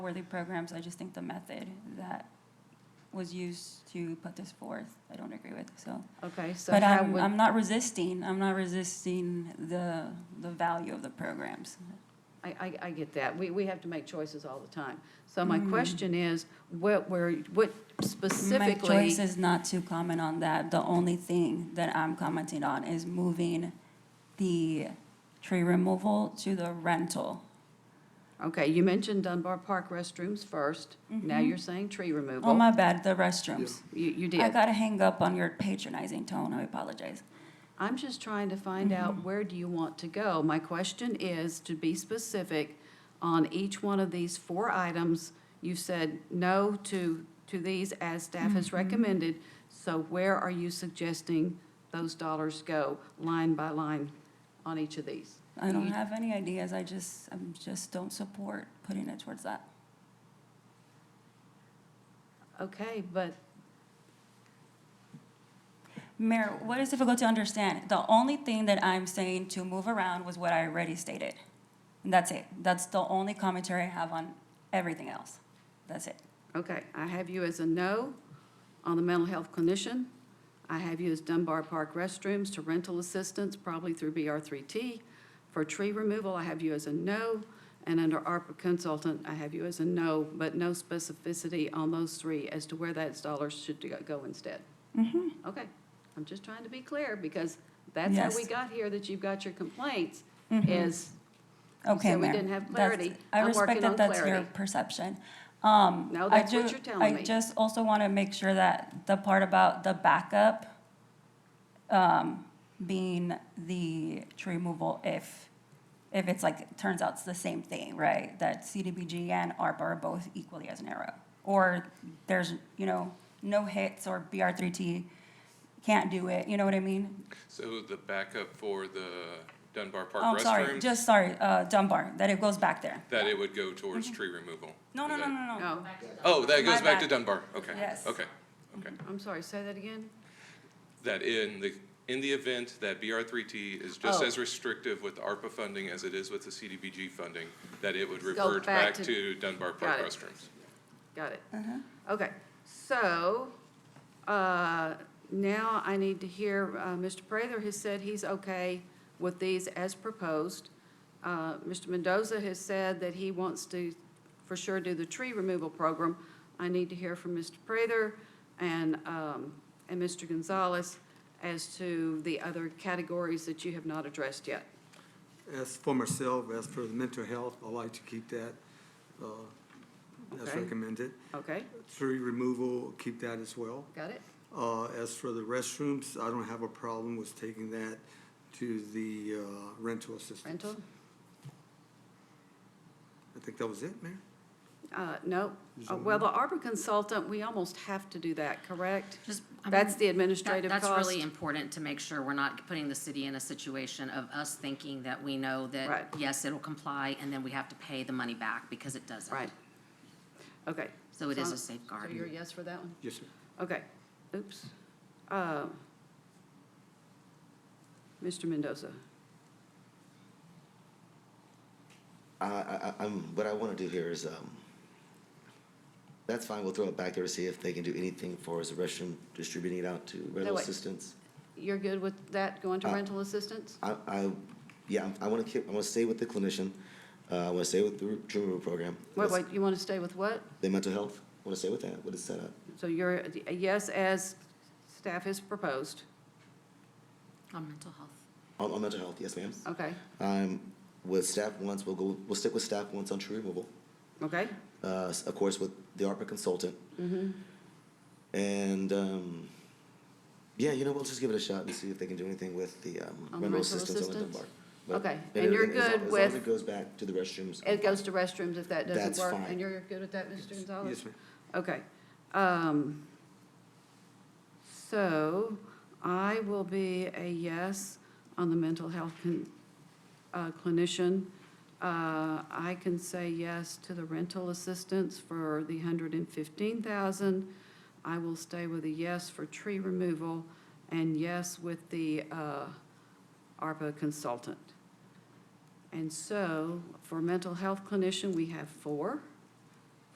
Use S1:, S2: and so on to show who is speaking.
S1: worthy programs. I just think the method that was used to put this forth, I don't agree with, so.
S2: Okay, so
S1: But
S2: how
S1: I'm,
S2: would,
S1: I'm not resisting, I'm not resisting the, the value of the programs.
S2: I, I, I get that. We, we have to make choices all the time. So my
S1: Mm-hmm.
S2: question is, what were, what
S1: My
S2: specifically?
S1: choice is not to comment on that. The only thing that I'm commenting on is moving the tree removal to the rental.
S2: Okay, you mentioned Dunbar Park restrooms first. Now you're saying tree removal.
S1: Oh, Mm-hmm. my bad, the restrooms.
S2: You, you
S1: I
S2: did.
S1: gotta hang up on your patronizing tone, I apologize.
S2: I'm just trying to find out where do you want to go? My question is to be specific on each one of these four items. You said no to, to these as staff has recommended. So where are you suggesting those dollars go, line by line, on each of these?
S1: I
S2: Mm-hmm.
S1: don't have any ideas, I just, I just don't support putting it towards that.
S2: Okay, but
S1: Mayor, what is difficult to understand? The only thing that I'm saying to move around was what I already stated. And that's it. That's the only commentary I have on everything else. That's it.
S2: Okay, I have you as a no on the mental health clinician. I have you as Dunbar Park restrooms to rental assistance, probably through BR3T. For tree removal, I have you as a no, and under ARPA consultant, I have you as a no, but no specificity on those three as to where that dollars should go- go instead.
S1: Mm-hmm.
S2: Okay, I'm just trying to be clear, because that's how we
S1: Yes. Mm-hmm.
S2: got here, that you've got your complaints, is
S1: Okay,
S2: So we
S1: Mayor.
S2: didn't have
S1: That's-
S2: clarity.
S1: I
S2: I'm working
S1: respect that
S2: on
S1: that's your
S2: clarity.
S1: perception. Um,
S2: No,
S1: I
S2: that's what
S1: ju-
S2: you're telling
S1: I
S2: me.
S1: just also want to make sure that the part about the backup um, being the tree removal if, if it's like, turns out it's the same thing, right? That CDBG and ARPA are both equally as narrow. Or there's, you know, no hits or BR3T can't do it, you know what I mean?
S3: So the backup for the Dunbar
S1: Oh,
S3: Park
S1: sorry,
S3: restroom,
S1: just sorry, uh, Dunbar, that it goes back there.
S3: that it would go towards tree removal?
S1: Mm-hmm. No, no,
S3: Is
S1: no,
S3: that-
S1: no, no.
S2: no.
S3: Oh, that
S1: My
S3: goes back to
S1: bad.
S3: Dunbar, okay.
S1: Yes. Mm-hmm.
S3: Okay, okay.
S2: I'm sorry, say that again?
S3: That in the, in the event that BR three T is just
S2: Oh.
S3: as restrictive with ARPA funding as it is with the CDBG funding, that it would
S2: Go
S3: revert
S2: back
S3: back
S2: to-
S3: to Dunbar
S2: Got
S3: Park
S2: it.
S3: restrooms.
S2: Got it. Okay, so, uh, now I need to hear, uh, Mr. Prather has said he's okay with these as proposed. Uh, Mr. Mendoza has said that he wants to, for sure, do the tree removal program. I need to hear from Mr. Prather and, um, and Mr. Gonzalez as to the other categories that you have not addressed yet.
S4: As for myself, as for the mental health, I like to keep that uh, as
S2: Okay.
S4: recommended.
S2: Okay,
S4: Tree removal, keep that as well.
S2: got it?
S4: Uh, As for the restrooms, I don't have a problem with taking that to the uh, rental assistance.
S2: Rental?
S4: I think that was it, Mayor?
S2: Uh, no. Uh, Well, the ARPA consultant, we almost have to do that, correct?
S5: Just, I mean,
S2: That's the
S5: that,
S2: administrative cost.
S5: that's really important to make sure we're not putting the city in a situation of us thinking that we know
S2: Right.
S5: that, yes, it'll comply, and then we have to pay the money back because it doesn't.
S2: Right. Okay.
S5: So it is a
S2: So
S5: safeguard.
S2: you're a yes for that one?
S4: Yes, sir.
S2: Okay. Oops. Uh, Mr. Mendoza,
S6: I, I, I- I'm, what I want to do here is, um, that's fine, we'll throw it back there to see if they can do anything for us, the restroom, distributing it out to rental
S2: wait.
S6: assistance.
S2: you're good with that going to
S6: Uh,
S2: rental assistance?
S6: I, I, yeah, I'm- I want to keep, I want to stay with the clinician, uh, I want to stay with the re- tree removal program.
S2: Wait, wait, you want to stay with what?
S6: The mental health, I want to stay with that, uh, what is set up.
S2: So you're a- a yes as staff has proposed?
S5: On mental health.
S6: On, on mental health, yes, ma'am.
S2: Okay,
S6: Um, with staff once, we'll go, we'll stick with staff once on tree removal,
S2: okay,
S6: uh, s- of course, with the ARPA consultant.
S2: Mm-hmm.
S6: And, um, yeah, you know, we'll just give it a shot and see if they can do anything with the, um,
S2: the
S6: rental
S2: rental
S6: assistance on the
S2: assistance?
S6: Dunbar. But
S2: Okay,
S6: but
S2: and you're
S6: everything- as long-
S2: good
S6: As long as
S2: with-
S6: it goes back to the restrooms.
S2: It goes to restrooms if that doesn't
S6: That's
S2: work?
S6: fine.
S2: And you're good with that, Mr. Gonzalez?
S4: Yes, ma'am.
S2: Okay. um, So I will be a yes on the mental health con- uh, clinician. Uh, I can say yes to the rental assistance for the 115,000. I will stay with a yes for tree removal and yes with the uh, ARPA consultant. And so for mental health clinician, we have four.